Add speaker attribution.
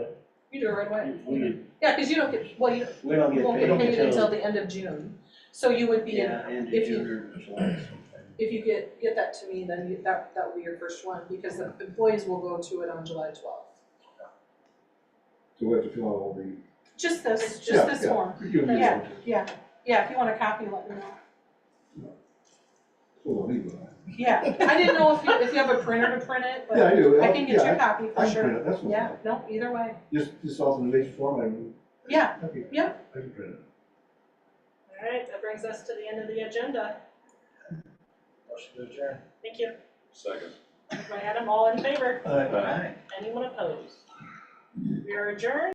Speaker 1: You do it right away.
Speaker 2: We,
Speaker 1: Yeah, cause you don't get, well, you
Speaker 2: we don't
Speaker 1: you
Speaker 2: get
Speaker 1: won't get
Speaker 2: paid
Speaker 1: paid until
Speaker 2: until,
Speaker 1: the end of June. So you would be, in-
Speaker 2: yeah, end of
Speaker 1: if you-
Speaker 2: June or July sometime.
Speaker 1: if you get, get that to me, then you, that, that would be your first one, because the employees will go to it on July twelfth.
Speaker 3: So we have to fill out all the.
Speaker 1: Just this,
Speaker 3: Yeah,
Speaker 1: just this
Speaker 3: yeah.
Speaker 1: form.
Speaker 3: you know,
Speaker 1: Yeah. Yeah, yeah, if you want a copy, let me know.
Speaker 3: Full of legal. ad.
Speaker 1: Yeah, I didn't know if you, if you have a printer to print it,
Speaker 3: Yeah,
Speaker 1: but
Speaker 3: I do.
Speaker 1: I can get you
Speaker 3: Yeah,
Speaker 1: a copy
Speaker 3: I
Speaker 1: for
Speaker 3: can print
Speaker 1: sure.
Speaker 3: it, that's what
Speaker 1: Yeah,
Speaker 3: I'm,
Speaker 1: no, either way.
Speaker 3: just, just authorization form, I can.
Speaker 1: Yeah,
Speaker 3: I can-
Speaker 1: yeah.
Speaker 3: I can print it.
Speaker 4: All right, that brings us to the end of the agenda.
Speaker 2: Motion to adjourn.
Speaker 4: Thank you.
Speaker 5: Second.
Speaker 4: Moved by Adam, all in favor?
Speaker 2: Aye.
Speaker 4: Anyone opposed? We are adjourned.